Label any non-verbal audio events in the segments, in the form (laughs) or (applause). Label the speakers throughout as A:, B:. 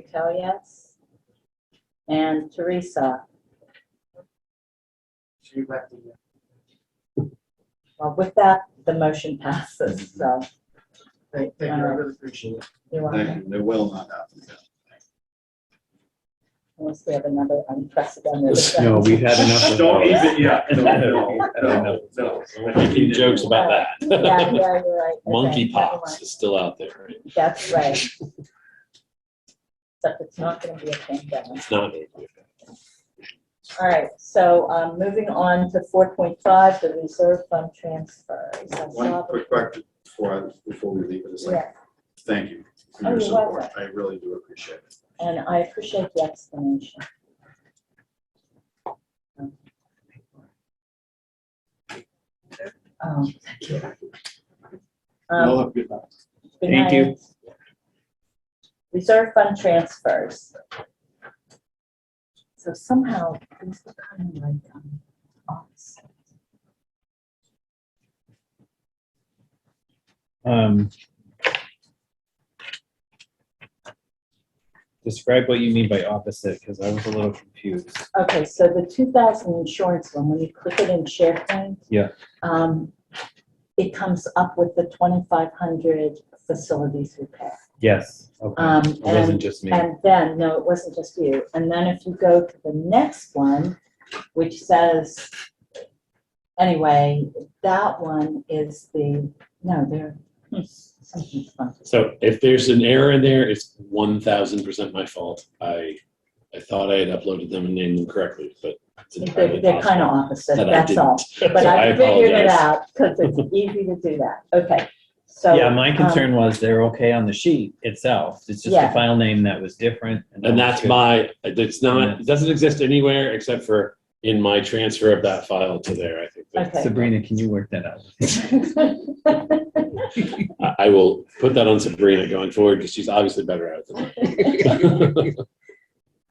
A: Patel, yes. And Teresa,
B: She left the. uh,
A: well, with that, the motion passes, so.
B: Thank, thank you, I really appreciate it.
A: you want to
C: They, they will not happen.
A: Unless we have another unprecedented.
D: No,
A: event.
D: we had enough. of
C: Don't
D: those.
C: even, yeah, no, no, no, no.
E: Making jokes about
A: (laughs) Yeah, yeah,
E: that.
A: you're right. Okay,
E: Monkey
A: never
E: pox is still out there, right?
A: mind. That's right. Except it's not going to be a pandemic.
E: It's not.
A: All right, so um, moving on to four point five, the reserve fund transfers. I saw
C: One
A: the-
C: quick question before, I- before we leave, it's like,
A: Yeah,
C: thank you for
A: Oh,
C: your
A: you're
C: support.
A: welcome.
C: I really do appreciate it.
A: and I appreciate the explanation. Um,
C: Y'all
A: um,
C: have a good night.
A: good
D: Thank you.
A: night. Reserve fund transfers. So somehow, these are kind of like, um, offset.
D: Um, Describe what you mean by opposite, because I was a little confused.
A: Okay, so the two thousand insurance one, when you click it in SharePoint.
D: Yeah.
A: Um, it comes up with the twenty-five hundred facilities repair.
D: Yes, okay.
A: Um,
D: It wasn't
A: and,
D: just me.
A: and then, no, it wasn't just you. And then if you go to the next one, which says, anyway, that one is the, no, there, hmm, something's funky.
E: So if there's an error in there, it's one thousand percent my fault. I, I thought I had uploaded them and named them correctly, but it's
A: They're,
E: entirely
A: they're kind of
E: possible
A: opposite,
E: that I
A: that's all.
E: didn't.
A: But
E: (laughs) So
A: I figured it
E: apologize.
A: out because it's
E: (laughs)
A: easy to do that. Okay, so.
D: Yeah, my
A: um,
D: concern was they're okay on the sheet itself. It's just
A: Yeah.
D: the file name that was different. that
E: And
D: was
E: that's
D: good.
E: my, it's not, it doesn't exist anywhere except for in my transfer of that file to there, I think. that-
A: Okay.
D: Sabrina, can you work that out? (laughs)
A: um, (laughs)
E: I, I will put that on Sabrina going forward because she's obviously better at it than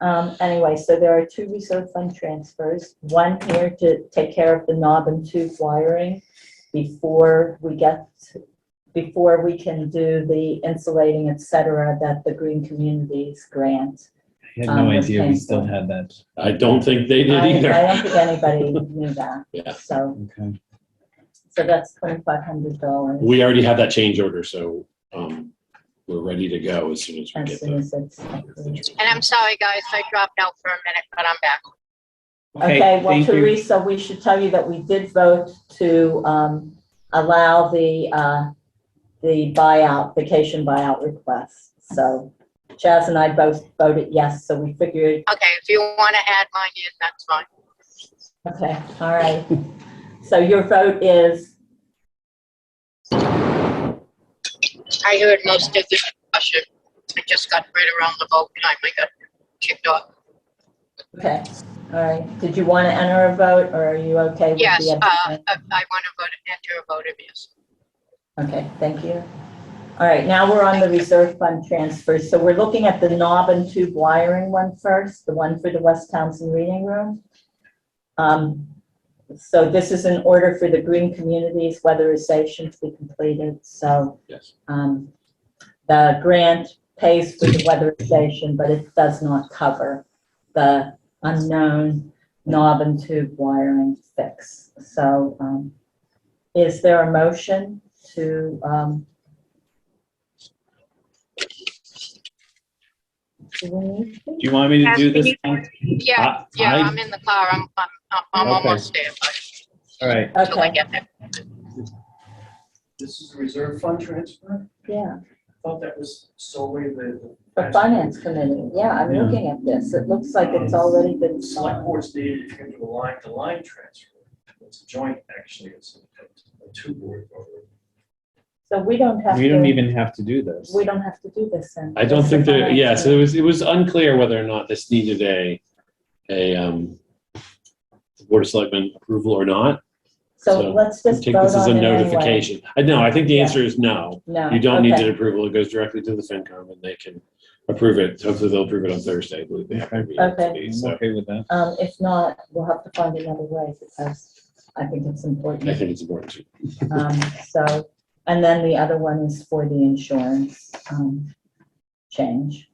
A: (laughs)
E: I.
A: Um, anyway, so there are two reserve fund transfers, one here to take care of the knob and tube wiring before we get, before we can do the insulating, et cetera, that the Green Communities grant.
D: I had
A: Um,
D: no
A: was
D: idea we
A: painful.
D: still had that.
E: (laughs) I don't think they
A: I,
E: did
A: I
E: either.
A: don't think anybody
E: (laughs)
A: knew
E: Yeah.
A: that, so,
D: Okay.
A: so that's twenty-five hundred dollars.
E: We already have that change order, so um, we're ready to go as soon as we
A: As
E: get
A: soon
E: the.
A: as it's.
F: And I'm sorry, guys, I dropped out for a minute, but I'm back.
A: Okay, well,
D: thank you.
A: Teresa, we should tell you that we did vote to um, allow the, uh, the buyout, vacation buyout request. So Chaz and I both voted yes, so we figured,
F: Okay, if you want to add mine in, that's fine.
A: okay, all
D: (laughs)
A: right. So your vote is,
F: I heard most of the discussion. I just got right around the vote time. I got kicked off.
A: okay, all right. Did you want to enter a vote or are you okay with the?
F: Yes, uh, I
A: abstain?
F: I want to vote, enter a vote of yes.
A: Okay, thank you. All right, now we're on the reserve fund transfers. So we're looking at the knob and tube wiring one first, the one for the West Townsend Reading Room. Um, So this is an order for the green communities weatherization to be completed, so
E: Yes.
A: um, the grant pays for the weatherization, but it does not cover the unknown knob and tube wiring fix. So um, is there a motion to, um, do we need to?
D: Do you want me to do this?
F: Ashley,
D: one?
F: Yeah,
D: I-
F: yeah,
D: I-
F: I'm in the car. I'm, I'm, I'm- I'm
D: Okay.
F: almost there, but
D: All right,
F: till I
A: Okay,
F: get there.
B: This is a reserve fund transfer?
A: yeah,
B: I Thought that was solely the.
A: for finance committee, yeah, I'm
D: Yeah.
A: looking at this, it looks like it's already been.
B: Select boards needed to do a line to line transfer. It's a joint, actually, it's a- a two board.
A: So we don't have to.
D: we don't even have to do this.
A: We don't have to do this then.
E: I don't
A: This
E: think
A: is on
E: that,
A: our-
E: yeah, so it was, it was unclear whether or not this needed a, a um, Board of Selectmen approval or not.
A: So
E: so
A: let's just
E: Take
A: vote
E: this as a
A: on it anyway.
E: notification. I know, I think the
A: Yeah.
E: answer is no.
A: No.
E: You don't need
A: okay.
E: an approval. It goes directly to the FinCom and they can approve it. Hopefully they'll approve it on Thursday. I believe they have to be here
A: Okay.
E: today,
D: I'm
E: So
D: okay with that.
A: Um, if not, we'll have to find another way because I think it's
E: I
A: important.
E: think it's important to
A: Um, so, and then the other one is for the insurance, um, change.